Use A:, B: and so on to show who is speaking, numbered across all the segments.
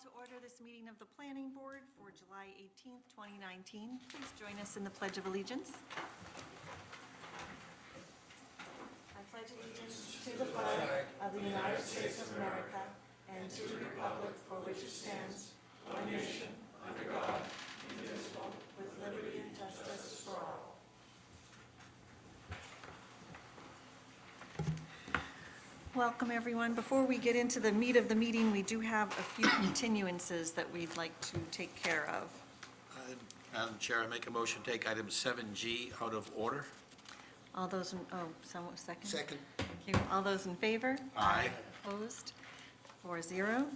A: to order this meeting of the Planning Board for July 18th, 2019. Please join us in the Pledge of Allegiance. I pledge allegiance to the flag of the United States of America and to the republic for which it stands, one nation, under God, indivisible, with liberty and justice for all. Welcome, everyone. Before we get into the meat of the meeting, we do have a few continuances that we'd like to take care of.
B: Madam Chair, I make a motion, to take item 7G out of order.
A: All those, in oh, someone, second?
C: Second.
A: Okay, All those in favor?
B: Aye.
A: Opposed? Four zero.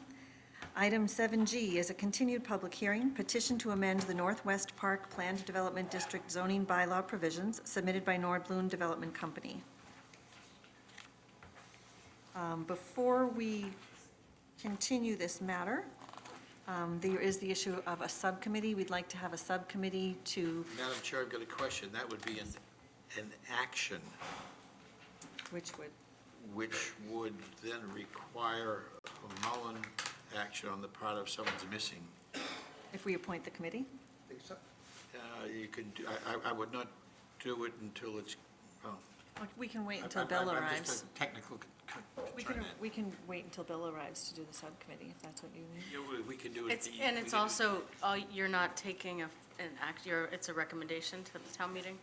A: Item 7G is a continued public hearing, petition to amend the Northwest Park Planned Development District zoning bylaw provisions submitted by Nordblum Development Company. Um, Before we continue this matter, um, there is the issue of a subcommittee. We'd like to have a subcommittee to,
B: Madam Chair, I've got a question. That would be an, an action,
A: which would,
B: which would then require a Mullen action on the part of someone's missing.
A: if we appoint the committee?
C: Think so?
B: Uh, You can, do- I, I- I would not do it until it's, well.
A: We can wait
B: I-
A: until
B: I-
A: Bill
B: I'm just
A: arrives.
B: a Technical con- con-
A: We can,
B: concern.
A: we can wait until Bill arrives to do the subcommittee, if that's what you need.
B: Yeah, we- We can do it.
D: It's,
B: the-
D: and
B: we
D: it's
B: can do-
D: also, uh, you're not taking a, an act, you're, it's a recommendation to the town meeting,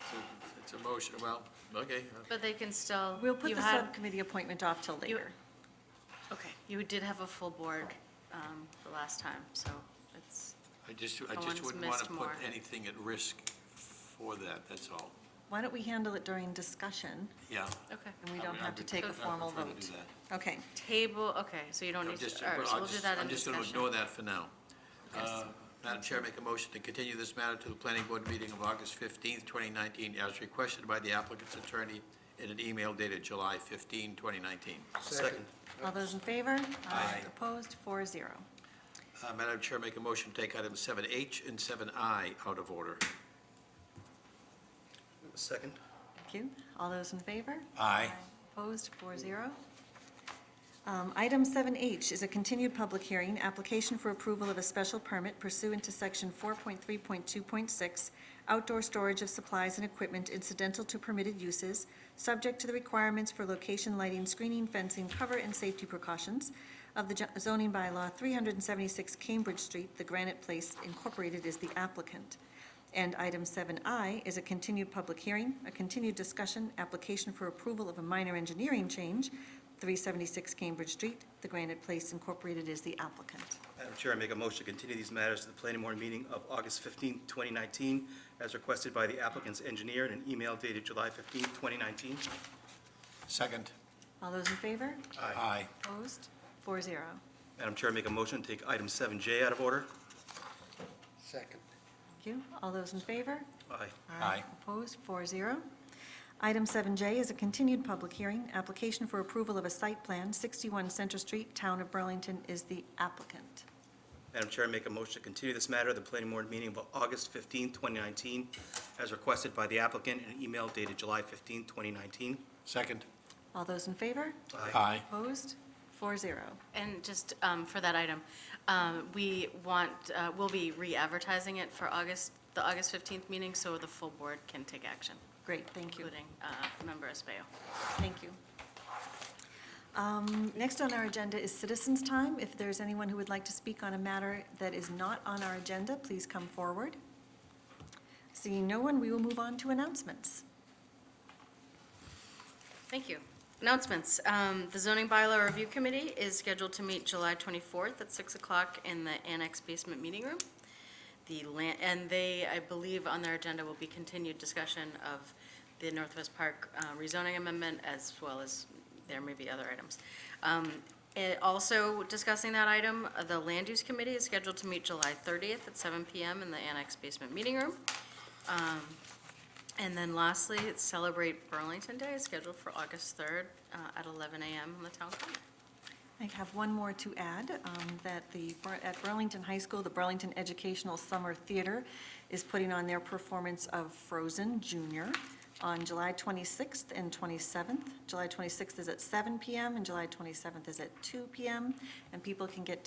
B: it's a- It's a motion, well, okay. uh,
D: but they can still.
A: We'll put
D: you
A: the
D: had-
A: subcommittee appointment off till
D: you-
A: later.
D: Okay, you did have a full board um, the last time, so it's,
B: I just, I
D: Someone's
B: just wouldn't want
D: missed
B: to put
D: more.
B: anything at risk for that, that's all.
A: Why don't we handle it during discussion,
B: Yeah.
D: okay.
A: and we
B: I
A: don't
B: would- I
A: have to
B: would-
A: take
B: I
A: a
B: would
A: formal
B: prefer to do
A: vote?
B: that.
A: Okay,
D: Table, okay, so you don't
B: No,
D: need
B: just-
D: to, all right,
B: well,
D: so
B: I'll
D: we'll do
B: just-
D: that in
B: I'm just going
D: discussion.
B: to ignore that for now.
D: Yes.
B: Uh, Madam Chair, make a motion to continue this matter to the planning board meeting of August 15th, 2019, as requested by the applicant's attorney in an email dated July 15, 2019.
C: Second.
A: all those in favor?
B: Aye.
A: Opposed, four zero.
B: Uh, Madam Chair, make a motion to take items 7H and 7I out of order.
C: Second.
A: Thank you. All those in favor?
B: Aye.
A: Opposed, four zero. Um, Item 7H is a continued public hearing, application for approval of a special permit pursuant to Section 4.3.2.6, outdoor storage of supplies and equipment incidental to permitted uses, subject to the requirements for location, lighting, screening, fencing, cover, and safety precautions of the jo- zoning bylaw 376 Cambridge Street, the Granite Place Incorporated is the applicant. And item 7I is a continued public hearing, a continued discussion, application for approval of a minor engineering change, 376 Cambridge Street, The Granite Place Incorporated is the applicant.
E: Madam Chair, I make a motion to continue these matters to the planning board meeting of August 15, 2019, as requested by the applicant's engineer in an email dated July 15, 2019.
B: Second.
A: All those in favor?
B: Aye.
A: Opposed? Four zero.
E: Madam Chair, I make a motion to take item 7J out of order.
C: Second.
A: Thank you. All those in favor?
E: Aye.
B: Aye.
A: Opposed, four zero. Item 7J is a continued public hearing, application for approval of a site plan, 61 Center Street, Town of Burlington is the applicant.
E: Madam Chair, I make a motion to continue this matter to the planning board meeting of August 15, 2019, as requested by the applicant in an email dated July 15, 2019.
B: Second.
A: All those in favor?
B: Aye.
A: Opposed, four zero.
D: And just um, for that item, um, we want, uh, we'll be re-advertising it for August, the August 15th meeting, so the full board can take action,
A: Great, thank you.
D: including uh, Member Españo.
A: Thank you. Um, Next on our agenda is citizens' time. If there's anyone who would like to speak on a matter that is not on our agenda, please come forward. Seeing no one, we will move on to announcements.
D: Thank you. Announcements. Um, The zoning bylaw review committee is scheduled to meet July 24th at 6 o'clock in the annex basement meeting room. The land, and they, I believe, on their agenda will be continued discussion of the Northwest Park uh, rezoning amendment as well as there may be other items. Um, eh, Also discussing that item, uh, the land use committee is scheduled to meet July 30th at 7 PM in the annex basement meeting room. And then lastly, it's Celebrate Burlington Day, scheduled for August 3rd uh, at 11 a.m. on the town common.
A: I have one more to add, um, that the, Bur- at Burlington High School, the Burlington Educational Summer Theater is putting on their performance of Frozen Junior on July 26th and 27th. July 26th is at 7 PM and July 27th is at 2 PM, and people can get tickets